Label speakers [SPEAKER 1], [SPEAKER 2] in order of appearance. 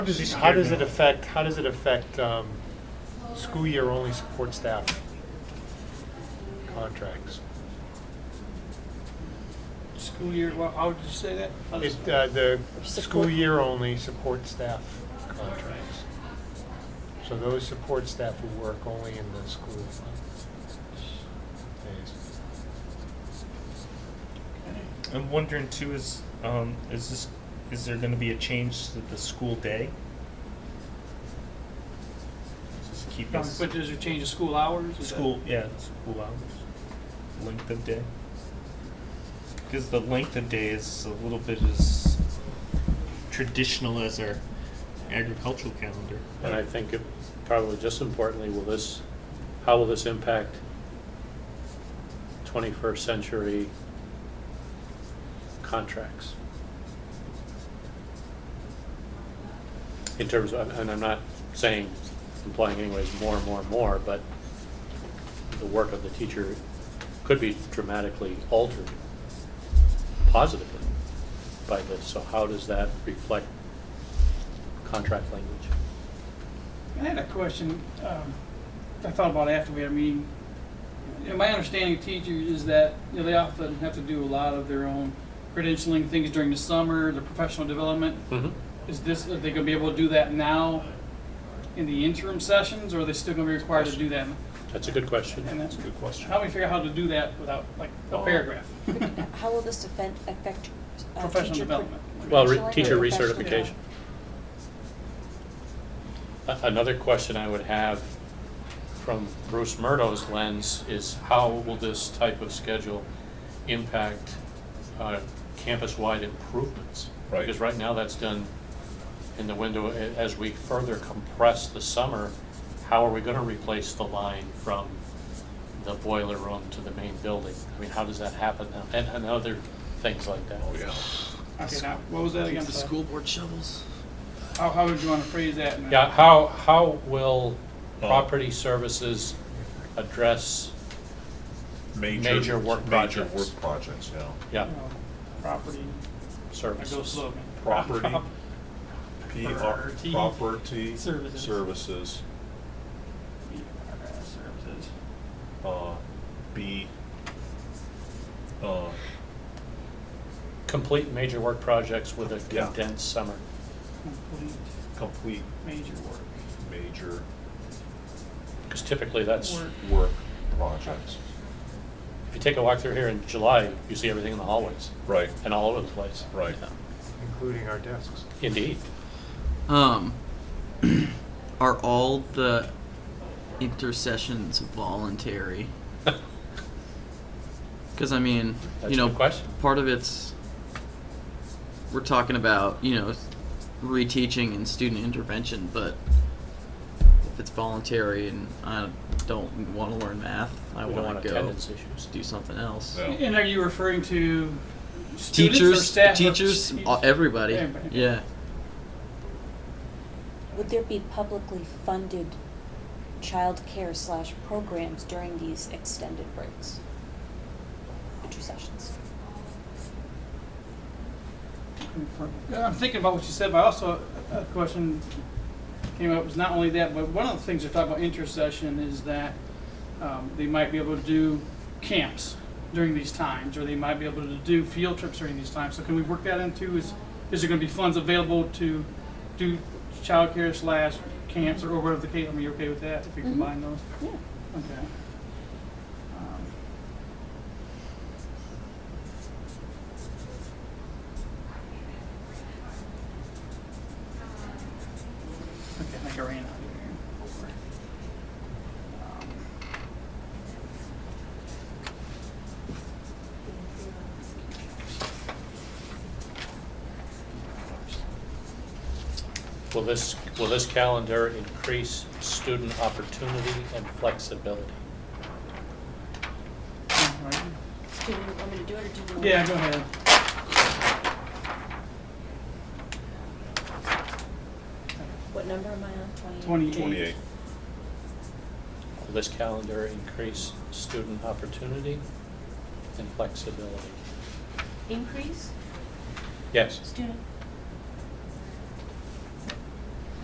[SPEAKER 1] How does, how does it affect, how does it affect, um, school year only support staff contracts?
[SPEAKER 2] School year, well, how did you say that? How does-
[SPEAKER 1] It, uh, the school
[SPEAKER 3] Support-
[SPEAKER 1] year only support staff contracts. So those support staff who work only in the school days.
[SPEAKER 4] I'm wondering too is um, is this is there going to be a change to the school day? Just keep
[SPEAKER 2] Um,
[SPEAKER 4] us
[SPEAKER 2] But does it change the school hours? Is that-
[SPEAKER 4] school yeah school hours length of day because the length of day is a little bit as traditional as our agricultural calendar.
[SPEAKER 5] And I think it, probably just importantly, will this, how will this impact twenty-first century contracts? In terms of, and I'm not saying, implying anyways, more and more and more, but the work of the teacher could be dramatically altered positively by this. So how does that reflect contract language?
[SPEAKER 2] I had a question, um, I thought about after we had a meeting. You know, my understanding of teachers is that, you know, they often have to do a lot of their own credentialing things during the summer, their professional development.
[SPEAKER 5] Mhm.
[SPEAKER 2] Is this, are they gonna be able to do that now in the interim sessions, or are they still gonna be required to do that?
[SPEAKER 5] That's a good question. Oh.
[SPEAKER 2] And that's-
[SPEAKER 5] good
[SPEAKER 2] How do we figure out how to do that without, like, a paragraph?
[SPEAKER 3] How will this affect, affect uh,
[SPEAKER 2] Professional
[SPEAKER 3] teacher pro-
[SPEAKER 2] development.
[SPEAKER 5] Well, re-
[SPEAKER 3] credentialing or
[SPEAKER 5] teacher
[SPEAKER 3] professional
[SPEAKER 5] recertification. A- Another question I would have from Bruce Murdo's lens is how will this type of schedule impact uh, campus-wide improvements?
[SPEAKER 6] Right.
[SPEAKER 5] Because right now that's done in the window, A- as we further compress the summer, how are we gonna replace the line from the boiler room to the main building? I mean, how does that happen now? And, and other things like that.
[SPEAKER 2] Okay, now, what was that again?
[SPEAKER 7] The
[SPEAKER 2] sorry?
[SPEAKER 7] school board shovels.
[SPEAKER 2] How, how would you wanna phrase that? in a-
[SPEAKER 5] Yeah, how, how will
[SPEAKER 6] Uh,
[SPEAKER 5] property services address, Major work
[SPEAKER 6] Major
[SPEAKER 5] projects.
[SPEAKER 6] work projects, yeah.
[SPEAKER 5] yeah,
[SPEAKER 2] you know, Property, I go
[SPEAKER 5] services?
[SPEAKER 2] slogan.
[SPEAKER 6] Property, P R,
[SPEAKER 2] Property.
[SPEAKER 6] property.
[SPEAKER 2] Services.
[SPEAKER 6] Services,
[SPEAKER 2] Services.
[SPEAKER 6] uh, B, uh,
[SPEAKER 5] Complete major work projects with a
[SPEAKER 6] Yeah.
[SPEAKER 5] condensed summer.
[SPEAKER 2] Complete
[SPEAKER 6] complete
[SPEAKER 2] major work.
[SPEAKER 6] major
[SPEAKER 5] Because typically that's,
[SPEAKER 2] Work.
[SPEAKER 6] work projects.
[SPEAKER 5] if you take a walk through here in July, you see everything in the hallways
[SPEAKER 6] Right,
[SPEAKER 5] and all over the place.
[SPEAKER 6] right.
[SPEAKER 1] Including our desks.
[SPEAKER 5] Indeed.
[SPEAKER 7] Um, are all the intercessions voluntary? Because I mean,
[SPEAKER 5] That's a
[SPEAKER 7] you know,
[SPEAKER 5] good question.
[SPEAKER 7] part of it's we're talking about you know reteaching and student intervention, but if it's voluntary and I don't want to learn math, I
[SPEAKER 5] We don't want
[SPEAKER 7] want to go
[SPEAKER 5] attendance issues.
[SPEAKER 7] do something else.
[SPEAKER 6] Yeah.
[SPEAKER 2] And are you referring to students or
[SPEAKER 7] Teachers,
[SPEAKER 2] staff? or
[SPEAKER 7] teachers,
[SPEAKER 2] teach-
[SPEAKER 7] uh, everybody.
[SPEAKER 2] Everybody.
[SPEAKER 7] Yeah.
[SPEAKER 3] Would there be publicly funded childcare slash programs during these extended breaks? Intersessions.
[SPEAKER 2] Yeah, I'm thinking about what you said, but also a question came up, was not only that, but one of the things they talk about intercession is that um, they might be able to do camps during these times, or they might be able to do field trips during these times. So can we work that into, is, is there gonna be funds available to do childcare slash camps or whatever the case, I mean, you okay with that, if we combine those?
[SPEAKER 3] Yeah.
[SPEAKER 2] Okay. Um, Okay, I think I ran out of here. Um,
[SPEAKER 5] Will this, will this calendar increase student opportunity and flexibility?
[SPEAKER 2] all right.
[SPEAKER 3] Do you want me to do it or do you want?
[SPEAKER 2] Um, Yeah, go ahead.
[SPEAKER 3] What number am I on?
[SPEAKER 2] Twenty-eight.
[SPEAKER 6] Twenty-eight,
[SPEAKER 5] Will this calendar increase student opportunity and flexibility?
[SPEAKER 3] Increase
[SPEAKER 5] Yes,
[SPEAKER 3] student